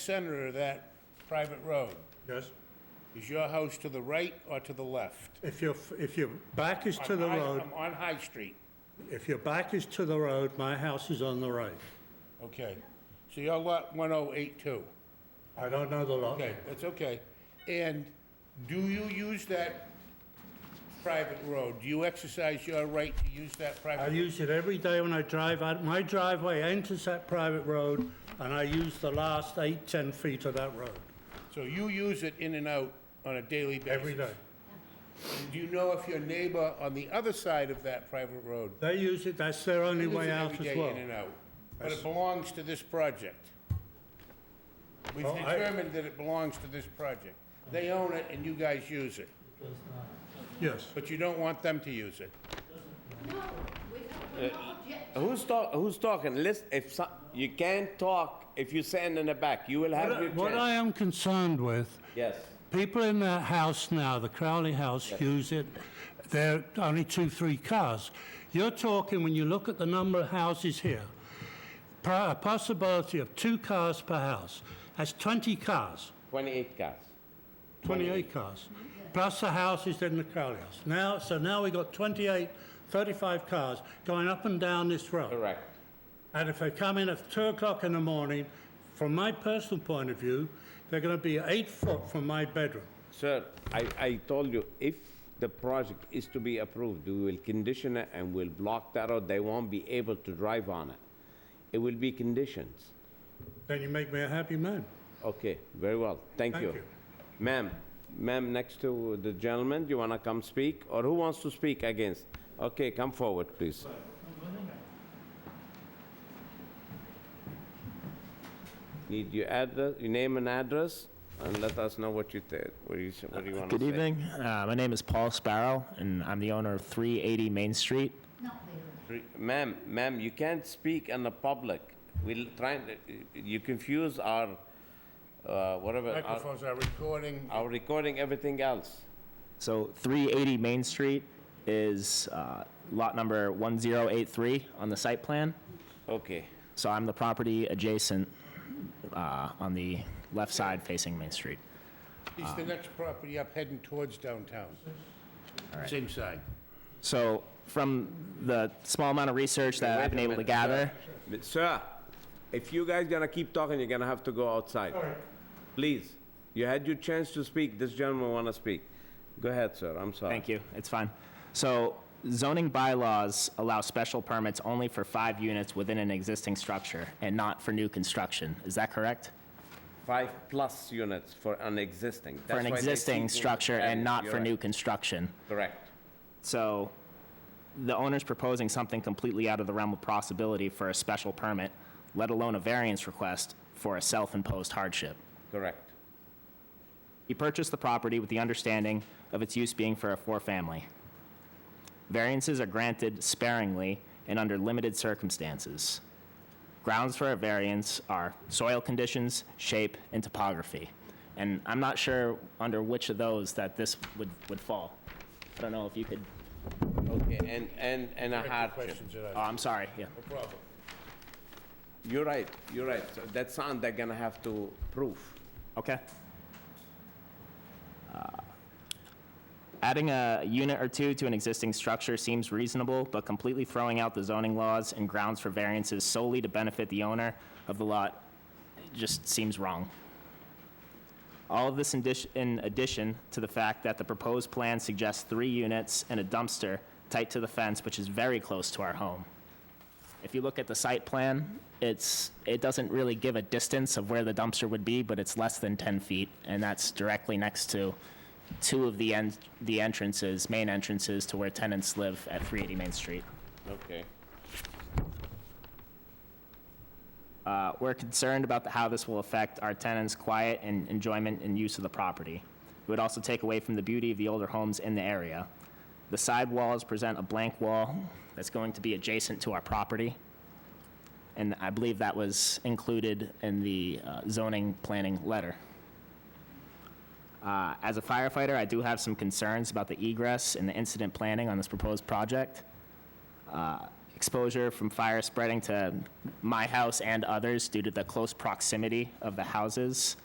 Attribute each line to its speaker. Speaker 1: center of that private road,
Speaker 2: Yes,
Speaker 1: is your house to the right or to the left?
Speaker 2: if your, if your back is to the
Speaker 1: On High-
Speaker 2: road,
Speaker 1: I'm On High Street,
Speaker 2: if your back is to the road, my house is on the right.
Speaker 1: okay. So your lot 1082,
Speaker 2: I don't know the lot.
Speaker 1: okay, that's okay. And do you use that private road? Do you exercise your right to use that
Speaker 2: I
Speaker 1: private?
Speaker 2: use it every day when I drive out, my driveway enters that private road, and I use the last eight, 10 feet of that road,
Speaker 1: So you use it in and out on a daily basis?
Speaker 2: every day.
Speaker 1: Do you know if your neighbor on the other side of that private road?
Speaker 2: They use it, that's their only
Speaker 1: uses
Speaker 2: way
Speaker 1: it
Speaker 2: out
Speaker 1: every
Speaker 2: as
Speaker 1: day
Speaker 2: well.
Speaker 1: in and out. But it belongs to this project. We've
Speaker 2: Well, I-
Speaker 1: determined that it belongs to this project. They own it and you guys use it,
Speaker 2: Yes,
Speaker 1: but you don't want them to use it.
Speaker 3: Who's talk, who's talking? Listen, if so, you can't talk if you stand in the back, you will have
Speaker 2: What I-
Speaker 3: your
Speaker 2: what I
Speaker 3: chance.
Speaker 2: am concerned with
Speaker 3: Yes.
Speaker 2: People in that house now, the Crowley house, use it. There are only two, three cars. You're talking, when you look at the number of houses here, pro- a possibility of two cars per house. That's 20 cars,
Speaker 3: Twenty-eight cars.
Speaker 2: 28 cars, plus the houses in the Crowley house. Now, so now we've got 28, 35 cars going up and down this road.
Speaker 3: Correct.
Speaker 2: And if they come in at two o'clock in the morning, from my personal point of view, they're going to be eight foot from my bedroom.
Speaker 3: Sir, I, I told you, if the project is to be approved, we will condition it and we'll block that road. They won't be able to drive on it. It will be conditions.
Speaker 2: Then you make me a happy man.
Speaker 3: Okay, very well. Thank
Speaker 2: Thank
Speaker 3: you.
Speaker 2: you.
Speaker 3: Ma'am, ma'am, next to the gentleman, do you wanna come speak? Or who wants to speak against? Okay, come forward, please. Need your address, your name and address, and let us know what you did, what you, s- what you wanna say.
Speaker 4: Good evening. Uh, my name is Paul Sparrow, and I'm the owner of 380 Main Street.
Speaker 3: Re- Ma'am, ma'am, you can't speak in the public. We'll try, and- you confuse our, uh, whatever, our,
Speaker 1: Microphones are recording.
Speaker 3: our recording, everything else.
Speaker 4: So 380 Main Street is uh, lot number 1083 on the site plan.
Speaker 3: Okay.
Speaker 4: So I'm the property adjacent uh, on the left side facing Main Street.
Speaker 1: He's the next property up heading towards downtown. Same side.
Speaker 4: So from the small amount of research that
Speaker 3: Wait
Speaker 4: I've been
Speaker 3: a
Speaker 4: able to
Speaker 3: minute,
Speaker 4: gather,
Speaker 3: sir. Sir, if you guys gonna keep talking, you're gonna have to go outside. Please, you had your chance to speak, this gentleman wanna speak. Go ahead, sir, I'm sorry.
Speaker 4: Thank you, it's fine. So zoning bylaws allow special permits only for five units within an existing structure and not for new construction. Is that correct?
Speaker 3: Five-plus units for an existing.
Speaker 4: For an existing structure and not for new construction.
Speaker 3: Correct.
Speaker 4: So the owner's proposing something completely out of the realm of possibility for a special permit, let alone a variance request for a self-imposed hardship.
Speaker 3: Correct.
Speaker 4: He purchased the property with the understanding of its use being for a four-family. Variances are granted sparingly and under limited circumstances. Grounds for a variance are soil conditions, shape, and topography. And I'm not sure under which of those that this would, would fall. I don't know if you could,
Speaker 3: Okay, and, and, and a
Speaker 1: Direct the
Speaker 3: hardship.
Speaker 1: questions
Speaker 4: oh,
Speaker 1: that I-
Speaker 4: I'm sorry, yeah.
Speaker 1: No problem.
Speaker 3: You're right, you're right. So That's something they're gonna have to prove.
Speaker 4: Okay. Uh, Adding a unit or two to an existing structure seems reasonable, but completely throwing out the zoning laws and grounds for variances solely to benefit the owner of the lot just seems wrong. All of this in dish- in addition to the fact that the proposed plan suggests three units and a dumpster tight to the fence, which is very close to our home. If you look at the site plan, it's, it doesn't really give a distance of where the dumpster would be, but it's less than 10 feet, and that's directly next to two of the en, the entrances, main entrances to where tenants live at 380 Main Street.
Speaker 3: Okay.
Speaker 4: Uh, We're concerned about the- how this will affect our tenants' quiet and enjoyment and use of the property. It would also take away from the beauty of the older homes in the area. The side walls present a blank wall that's going to be adjacent to our property, and I believe that was included in the uh, zoning planning letter. Uh, As a firefighter, I do have some concerns about the egress and the incident planning on this proposed project. exposure from fire spreading to my house and others due to the close proximity of the houses.